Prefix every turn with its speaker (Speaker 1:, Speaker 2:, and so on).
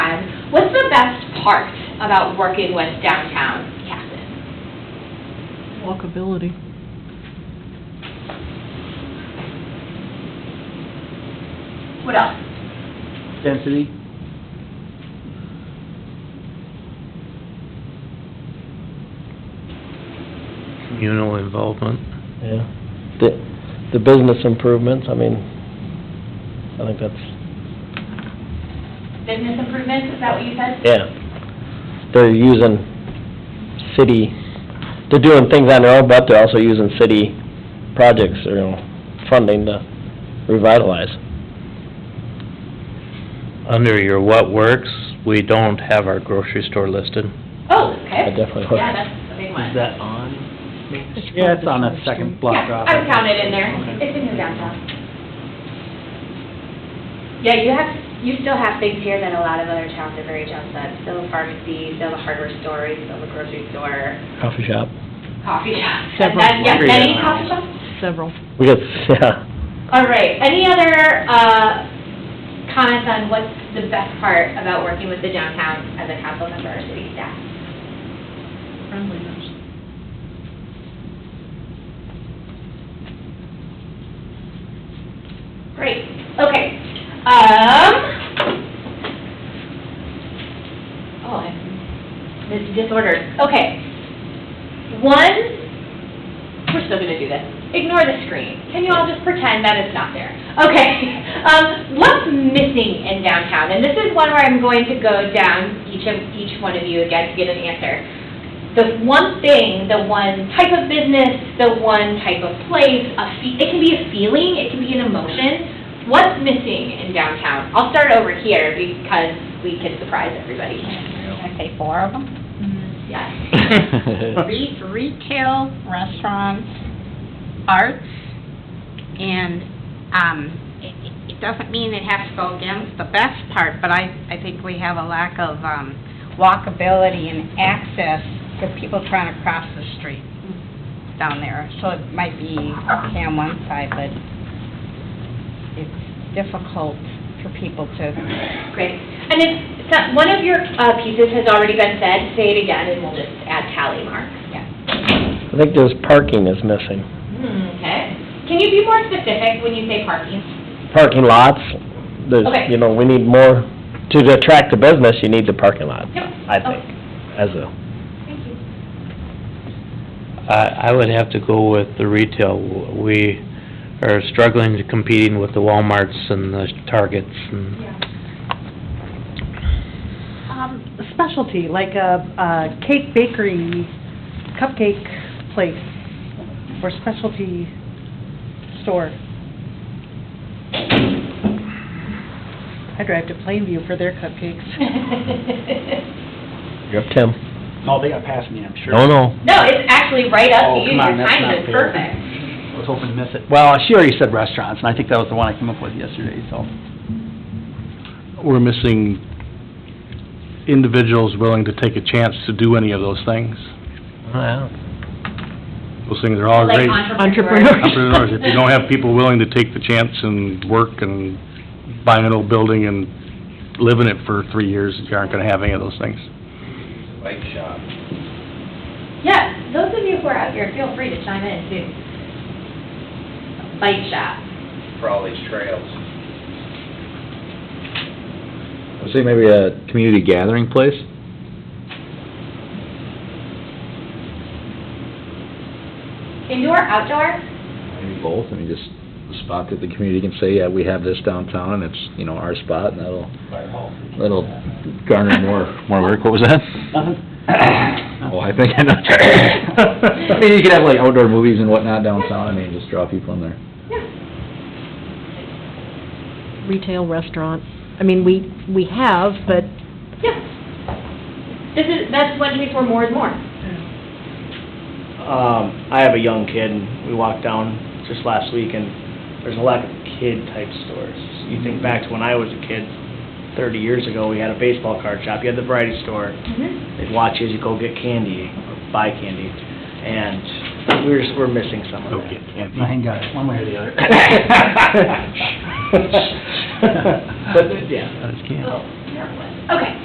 Speaker 1: heart about working with downtown Casson.
Speaker 2: Walkability.
Speaker 1: What else?
Speaker 3: Density?
Speaker 4: communal involvement.
Speaker 3: Yeah. The, the business improvements, I mean, I think that's,
Speaker 1: Business improvements, is that what you said?
Speaker 3: yeah. They're using city, they're doing things on their own, but they're also using city projects, you know, funding to revitalize.
Speaker 4: Under your what works, we don't have our grocery store listed.
Speaker 1: Oh, okay.
Speaker 3: I definitely would.
Speaker 1: Yeah, that's a big one.
Speaker 5: that on? Yeah, it's on a second block
Speaker 1: Yeah,
Speaker 5: off.
Speaker 1: I would count it in there.
Speaker 5: Okay.
Speaker 1: It's in your downtown. Yeah, you have, you still have things here that a lot of other towns are very jealous of. Still a pharmacy, still a hardware store, still a grocery store,
Speaker 3: Coffee shop.
Speaker 1: coffee shop.
Speaker 2: Several.
Speaker 1: And that- Yeah, any
Speaker 5: Yeah.
Speaker 1: coffee shops?
Speaker 2: Several.
Speaker 3: We got, yeah,
Speaker 1: All right, any other, uh, comments on what's the best part about working with the downtown as a council member or city staff?
Speaker 2: Friendliness.
Speaker 1: Great, okay. Um, oh, I'm mis- disordered, okay. One, we're still gonna do this. Ignore the screen. Can you all just pretend that it's not there? Okay, um, what's missing in downtown? And this is one where I'm going to go down each of, each one of you again to get an answer. The one thing, the one type of business, the one type of place, a fe- it can be a feeling, it can be an emotion. What's missing in downtown? I'll start over here because we can surprise everybody.
Speaker 6: I say four of them.
Speaker 1: Yes.
Speaker 6: Re- Retail, restaurants, arts, and, um, it- it- it doesn't mean it has to go against the best part, but I, I think we have a lack of um, walkability and access for people trying to cross the street down there. So it might be okay on one side, but it's difficult for people to
Speaker 1: Great. And if, so- one of your uh, pieces has already been said, say it again and we'll just add tally marks.
Speaker 3: I think there's parking is missing.
Speaker 1: Hmm, Okay. Can you be more specific when you say parking?
Speaker 3: Parking lots, there's,
Speaker 1: Okay.
Speaker 3: you know, we need more, to attract the business, you need the parking lot,
Speaker 1: Yep. Oh,
Speaker 3: I think, as a
Speaker 1: Thank you.
Speaker 4: I, I would have to go with the retail. We are struggling to competing with the Walmarts and the Targets and,
Speaker 2: Um, specialty, like a, a cake bakery, cupcake place, or specialty store. I drive to Plainview for their cupcakes.
Speaker 3: You're up, Tim.
Speaker 5: Oh, they got past me, I'm sure.
Speaker 3: No, no.
Speaker 1: No, it's actually right up to
Speaker 5: Oh,
Speaker 1: you.
Speaker 5: come on,
Speaker 1: Your
Speaker 5: that's
Speaker 1: time
Speaker 5: not
Speaker 1: is
Speaker 5: fair.
Speaker 1: perfect.
Speaker 5: I was hoping to miss it. Well, she already said restaurants, and I think that was the one I came up with yesterday, so.
Speaker 7: we're missing individuals willing to take a chance to do any of those things. Those things are all
Speaker 1: Like
Speaker 7: Oh, great.
Speaker 1: entrepreneurs.
Speaker 7: Entrepreneurs, if you don't have people willing to take the chance and work and buy an old building and live in it for three years, you aren't gonna have any of those things.
Speaker 8: bike shop.
Speaker 1: Yeah, those of you who are out here, feel free to chime in too. Bike shop.
Speaker 8: for all these trails.
Speaker 9: I'd say maybe a community gathering place.
Speaker 1: Indoor, outdoor?
Speaker 9: Maybe both, I mean, just a spot that the community can say, yeah, we have this downtown, and it's, you know, our spot, and that'll, that'll garner more, more work. What was that?
Speaker 10: Uh-huh.
Speaker 9: Oh, I think I know. I mean, you could have like outdoor movies and whatnot downtown, I mean, just draw people in there.
Speaker 2: Retail, restaurant. I mean, we, we have, but
Speaker 1: Yeah. This is, that's one we for more and more.
Speaker 10: Um, I have a young kid, and we walked down just last week, and there's a lot of kid-type stores. You think back to when I was a kid, thirty years ago, we had a baseball card shop, you had the variety store,
Speaker 1: Mhm.
Speaker 10: they'd watch you as you go get candy, or buy candy, and we're, just- we're missing some of
Speaker 7: Okay.
Speaker 10: that.
Speaker 5: I ain't got it, one way or the other.
Speaker 10: But,
Speaker 4: That's
Speaker 10: yeah.
Speaker 1: Oh, there it was. Okay.